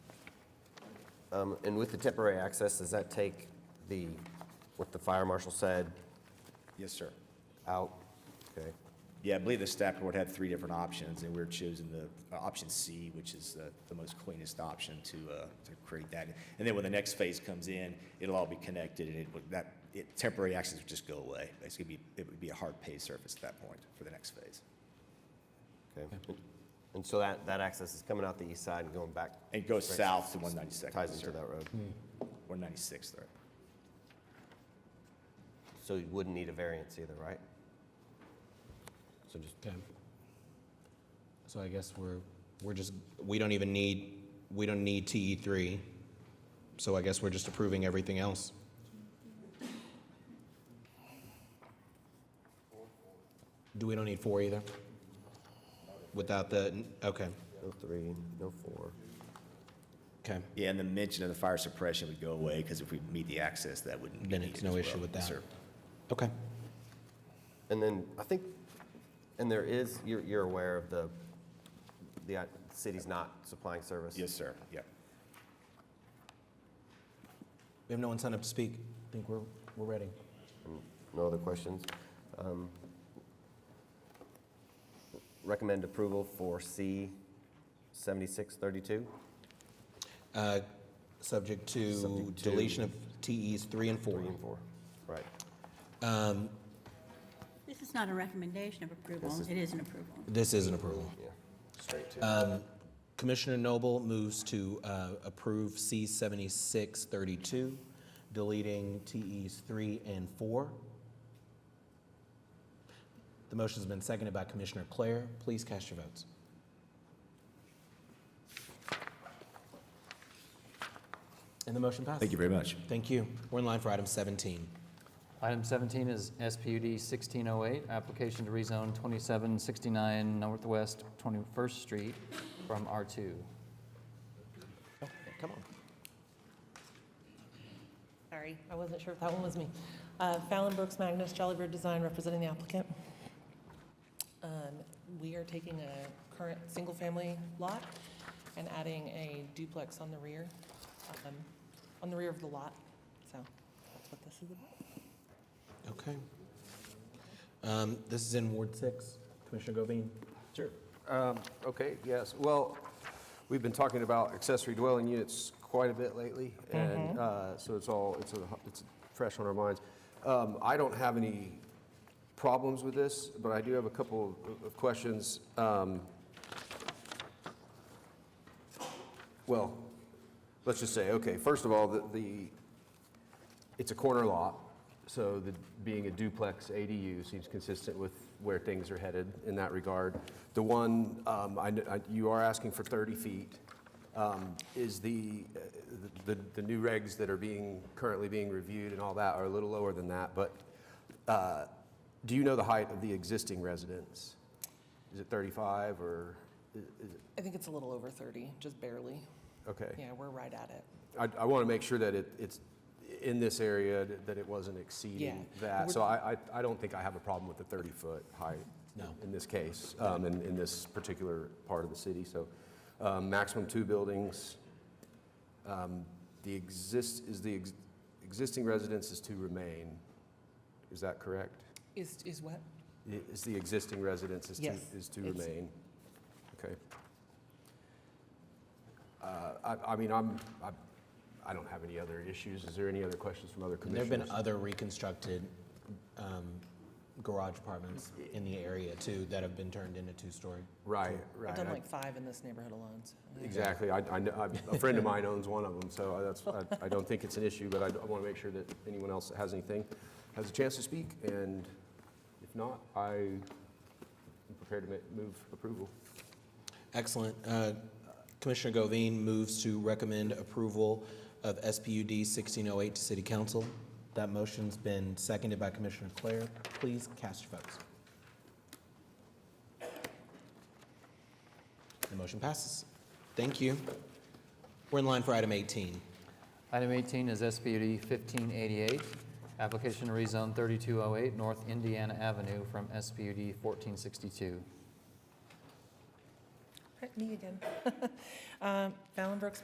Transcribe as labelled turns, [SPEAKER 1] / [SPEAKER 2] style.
[SPEAKER 1] Um, And with the temporary access, does that take the, what the fire marshal said
[SPEAKER 2] Yes, sir.
[SPEAKER 1] out? Okay.
[SPEAKER 2] Yeah, I believe the staff board had three different options, and we are choosing the uh, option C, which is uh, the most cleanest option to, uh, to create that. And then when the next phase comes in, it'll all be connected, and it would, that, it, temporary access would just go away. It's gonna be, it would be a hard paved surface at that point for the next phase.
[SPEAKER 1] Okay. And so that, that access is coming out the east side and going back,
[SPEAKER 2] And it goes south to Hmm. one ninety-second.
[SPEAKER 1] ties into that road?
[SPEAKER 2] One ninety-sixth, there.
[SPEAKER 1] So you wouldn't need a variance either, right? So just,
[SPEAKER 3] Okay. So I guess we're, we're just, we don't even need, we don't need TE three, so I guess we're just approving everything else. Do we don't need four either? Without the, okay,
[SPEAKER 1] no three, no four.
[SPEAKER 3] okay.
[SPEAKER 2] Yeah, and the mention of the fire suppression would go away, because if we meet the access, that wouldn't be
[SPEAKER 3] Then
[SPEAKER 2] needed
[SPEAKER 3] it's no
[SPEAKER 2] as
[SPEAKER 3] issue
[SPEAKER 2] well.
[SPEAKER 3] with
[SPEAKER 2] Yes,
[SPEAKER 3] that.
[SPEAKER 2] sir.
[SPEAKER 3] Okay,
[SPEAKER 1] And then, I think, and there is, you're, you're aware of the, the uh, city's not supplying service?
[SPEAKER 2] Yes, sir, yep.
[SPEAKER 3] we have no one signed up to speak. I think we're, we're ready.
[SPEAKER 1] No other questions? Um, Recommend approval for C 7632?
[SPEAKER 3] Uh, Subject to
[SPEAKER 1] Subject to-
[SPEAKER 3] deletion of TEs three and four.
[SPEAKER 1] Three and four. Right.
[SPEAKER 3] Um,
[SPEAKER 4] This is not a recommendation of approval, it is an approval.
[SPEAKER 3] This is an approval.
[SPEAKER 1] Yeah. Straight to.
[SPEAKER 3] Um, Commissioner Noble moves to uh, approve C-7632, deleting TEs 3 and 4. The motion's been seconded by Commissioner Clare. Please cast your votes. And the motion passes.
[SPEAKER 2] Thank you very much.
[SPEAKER 3] Thank you. We're in line for item 17.
[SPEAKER 5] Item 17 is SPUD 1608, application to rezone 2769 Northwest 21st Street from R2.
[SPEAKER 3] Come on.
[SPEAKER 6] Sorry, I wasn't sure if that one was me. Uh, Fallon Brooks Magnus, Jolly Bird Design, representing the applicant. Um, We are taking a current single-family lot and adding a duplex on the rear, um, on the rear of the lot. So that's what this is about.
[SPEAKER 3] Okay. Um, This is in Ward 6. Commissioner Govine? Sure.
[SPEAKER 7] Um, Okay, yes. Well, we've been talking about accessory dwelling units quite a bit lately, and uh, so it's all, it's, a- it's fresh on our minds. Um, I don't have any problems with this, but I do have a couple of- of questions. Um, Well, let's just say, okay, first of all, the- the, it's a corner lot, so the, being a duplex ADU seems consistent with where things are headed in that regard. The one, um, I kn- I- you are asking for 30 feet, um, is the, uh, the, the new regs that are being, currently being reviewed and all that are a little lower than that, but uh, do you know the height of the existing residence? Is it 35 or, i- is it,
[SPEAKER 6] I think it's a little over 30, just barely.
[SPEAKER 7] okay.
[SPEAKER 6] Yeah, we're right at it.
[SPEAKER 7] I, I want to make sure that it, it's in this area, th- that it wasn't exceeding
[SPEAKER 6] Yeah.
[SPEAKER 7] that. So I, I, I don't think I have a problem with the 30-foot height.
[SPEAKER 3] No.
[SPEAKER 7] In this case, um, in, in this particular part of the city, so, um, maximum two buildings. Um, The exist, is the ex- existing residence is to remain, is that correct?
[SPEAKER 6] Is, is what?
[SPEAKER 7] I- Is the existing residence is to,
[SPEAKER 6] Yes,
[SPEAKER 7] is to
[SPEAKER 6] it's-
[SPEAKER 7] remain? Okay. Uh, I, I mean, I'm, I- I don't have any other issues. Is there any other questions from other
[SPEAKER 3] And there have been
[SPEAKER 7] commissioners?
[SPEAKER 3] other reconstructed um, garage apartments in the area too that have been turned into two-story.
[SPEAKER 7] Right, right.
[SPEAKER 6] I've done
[SPEAKER 7] I-
[SPEAKER 6] like five in this neighborhood alone, so.
[SPEAKER 7] Exactly. I, I know, I- a friend of mine owns one of them, so I- that's, I- I don't think it's an issue, but I want to make sure that anyone else that has anything has a chance to speak, and if not, I am prepared to ma- move approval.
[SPEAKER 3] Excellent. Uh, Commissioner Govine moves to recommend approval of SPUD 1608 to City Council. That motion's been seconded by Commissioner Clare. Please cast your votes. The motion passes. Thank you. We're in line for item 18.
[SPEAKER 5] Item 18 is SPUD 1588, application to rezone 3208 North Indiana Avenue from SPUD 1462.
[SPEAKER 6] Me again. Um, Fallon Brooks